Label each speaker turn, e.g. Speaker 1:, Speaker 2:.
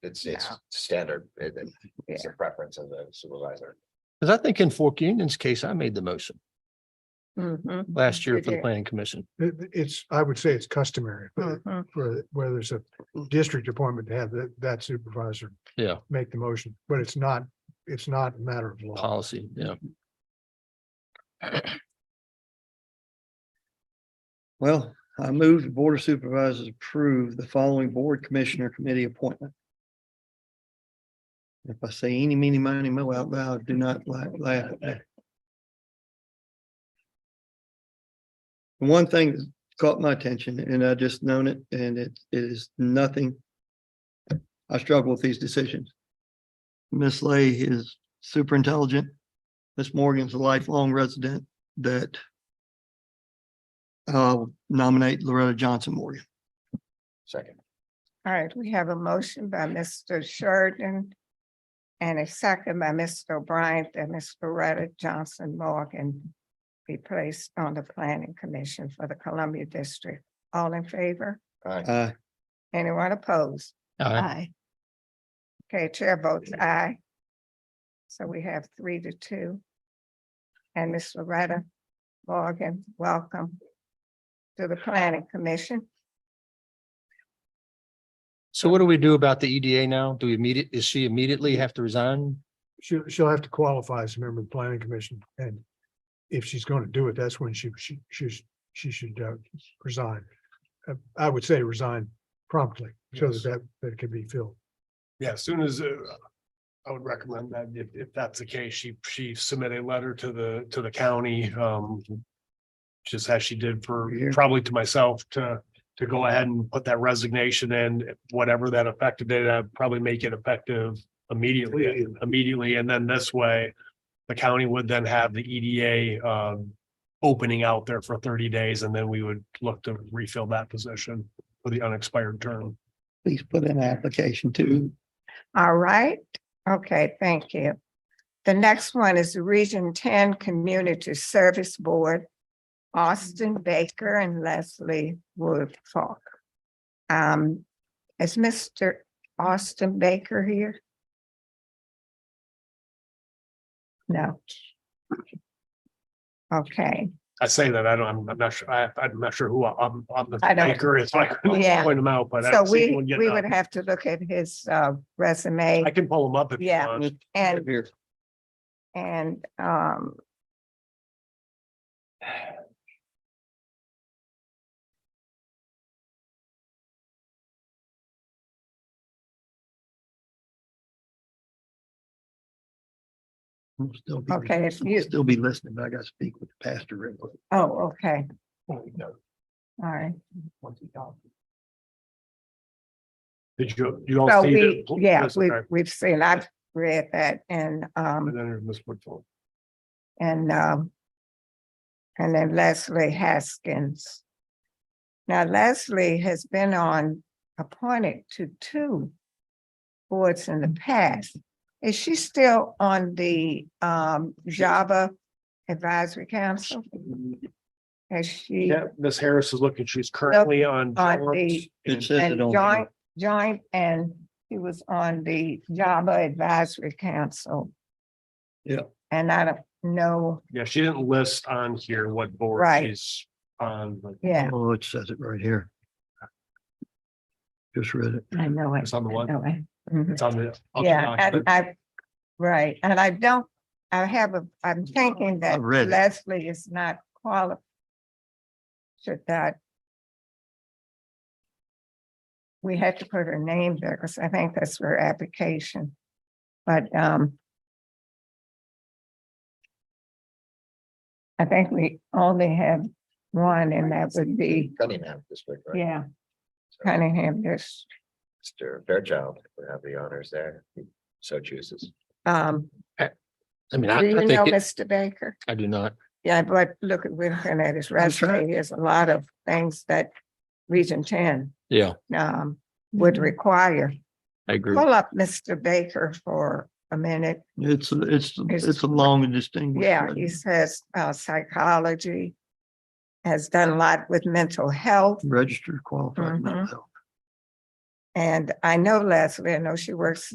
Speaker 1: It's, it's
Speaker 2: No.
Speaker 1: standard. It- it- It's a preference of the supervisor.
Speaker 3: Because I think in Fork Union's case, I made the motion
Speaker 2: Mhm,
Speaker 3: last year
Speaker 2: You
Speaker 3: for the
Speaker 2: did.
Speaker 3: planning commission.
Speaker 4: It, it's, I would say it's customary, but
Speaker 2: mhm.
Speaker 4: for, where there's a district appointment to have that, that supervisor
Speaker 3: Yeah,
Speaker 4: make the motion, but it's not, it's not a matter of law.
Speaker 3: policy, yeah.
Speaker 5: Well, I move the Board of Supervisors approve the following Board Commissioner Committee appointment. If I say any, meeny, miny, mo out loud, do not la- laugh at that. The One thing that caught my attention and I just known it and it it is nothing. I struggle with these decisions. Miss Lay is super intelligent. Miss Morgan's a lifelong resident that uh, nominate Loretta Johnson Morgan.
Speaker 1: Second,
Speaker 2: All right, we have a motion by Mr. Sheridan and a second by Mr. O'Brien that Ms. Loretta Johnson Morgan be placed on the planning commission for the Columbia District. All in favor?
Speaker 1: aye,
Speaker 5: Uh,
Speaker 2: Anyone opposed? Aye.
Speaker 3: Aye.
Speaker 2: Okay, chair votes aye. So we have three to two. And Ms. Loretta Morgan, welcome to the planning commission.
Speaker 3: So what do we do about the EDA now? Do we immediate, is she immediately have to resign?
Speaker 4: She'll, she'll have to qualify as a member of the planning commission and if she's going to do it, that's when she, she, she, sh- she should uh, resign. Uh, I would say resign promptly so that
Speaker 6: Yes.
Speaker 4: that, that can be filled.
Speaker 6: Yeah, as soon as uh, I would recommend that if if that's the case, she she submit a letter to the to the county um. Just as she did for
Speaker 5: Here.
Speaker 6: probably to myself to to go ahead and put that resignation in, whatever that effective date, I'd probably make it effective immediately, immediately, and then this way. The county would then have the EDA um opening out there for thirty days, and then we would look to refill that position for the unexpired term.
Speaker 5: please put in an application too.
Speaker 2: All right, okay, thank you. The next one is the Region Ten Community Service Board, Austin Baker and Leslie Wood Falk. Um, is Mr. Austin Baker here? No. Okay,
Speaker 6: I say that, I don't, I'm- I'm not sure, I, I'm not sure who I'm, I'm the
Speaker 2: I don't-
Speaker 6: anchor is, so I couldn't
Speaker 2: Yeah.
Speaker 6: point them out, but. I
Speaker 2: so
Speaker 6: don't see
Speaker 2: we,
Speaker 6: anyone yet.
Speaker 2: we would have to look at his uh resume
Speaker 6: I can pull them up if you
Speaker 2: Yeah.
Speaker 6: want.
Speaker 2: and
Speaker 5: Here,
Speaker 2: And um.
Speaker 5: we'll still be-
Speaker 2: Okay, if you-
Speaker 5: Still be listening, but I gotta speak with the pastor real quick.
Speaker 2: Oh, okay. All right,
Speaker 6: Did you, you all
Speaker 2: so
Speaker 6: see
Speaker 2: we,
Speaker 6: it?
Speaker 2: yeah,
Speaker 6: Yes,
Speaker 2: we've
Speaker 6: okay.
Speaker 2: we've seen, I've read that and
Speaker 6: And
Speaker 2: um
Speaker 6: then there's Ms. Woodfull.
Speaker 2: and um. And then Leslie Haskins. Now Leslie has been on appointed to two boards in the past. Is she still on the um Java Advisory Council? Has she?
Speaker 6: Yeah, Ms. Harris is looking, she's currently on.
Speaker 2: on
Speaker 6: Jones
Speaker 2: the-
Speaker 5: It
Speaker 6: and-
Speaker 5: says it
Speaker 2: And
Speaker 5: on.
Speaker 2: joint,
Speaker 5: here.
Speaker 2: joint, and he was on the Java Advisory Council.
Speaker 5: Yeah.
Speaker 2: And I don't know,
Speaker 6: Yeah, she didn't list on here what board
Speaker 2: Right.
Speaker 6: she's on, but
Speaker 2: yeah,
Speaker 5: Oh, it says it right here. Just read it.
Speaker 2: I know it.
Speaker 6: it's on the
Speaker 2: I
Speaker 6: one,
Speaker 2: know it. Mhm.
Speaker 6: it's on the. I'll check
Speaker 2: Yeah,
Speaker 6: on it.
Speaker 2: and I, right, and I don't, I have a, I'm thinking that
Speaker 5: read it.
Speaker 2: Leslie is not qualified. Should that. We had to put her name there because I think that's her application, but um. I think we only have one and that would be,
Speaker 1: Cunningham District, right?
Speaker 2: yeah,
Speaker 1: So,
Speaker 2: Cunningham, this,
Speaker 1: Mr. Fairchild would have the honors there, if he so chooses.
Speaker 2: um,
Speaker 3: I mean, I
Speaker 2: do you
Speaker 3: I
Speaker 2: know
Speaker 3: think, it-
Speaker 2: Mr. Baker?
Speaker 3: I do not.
Speaker 2: Yeah, but look, at- we're looking at his
Speaker 5: I'm sure.
Speaker 2: resume, there's a lot of things that Region Ten
Speaker 3: Yeah,
Speaker 2: um would require.
Speaker 3: I agree.
Speaker 2: Pull up Mr. Baker for a minute.
Speaker 5: It's, it's,
Speaker 2: It's-
Speaker 5: it's a long and distinguished.
Speaker 2: Yeah,
Speaker 5: letter.
Speaker 2: he says uh psychology. Has done a lot with mental health.
Speaker 5: Mm. Registered qualified mental
Speaker 2: Mhm.
Speaker 5: health.
Speaker 2: And I know Leslie, I know she works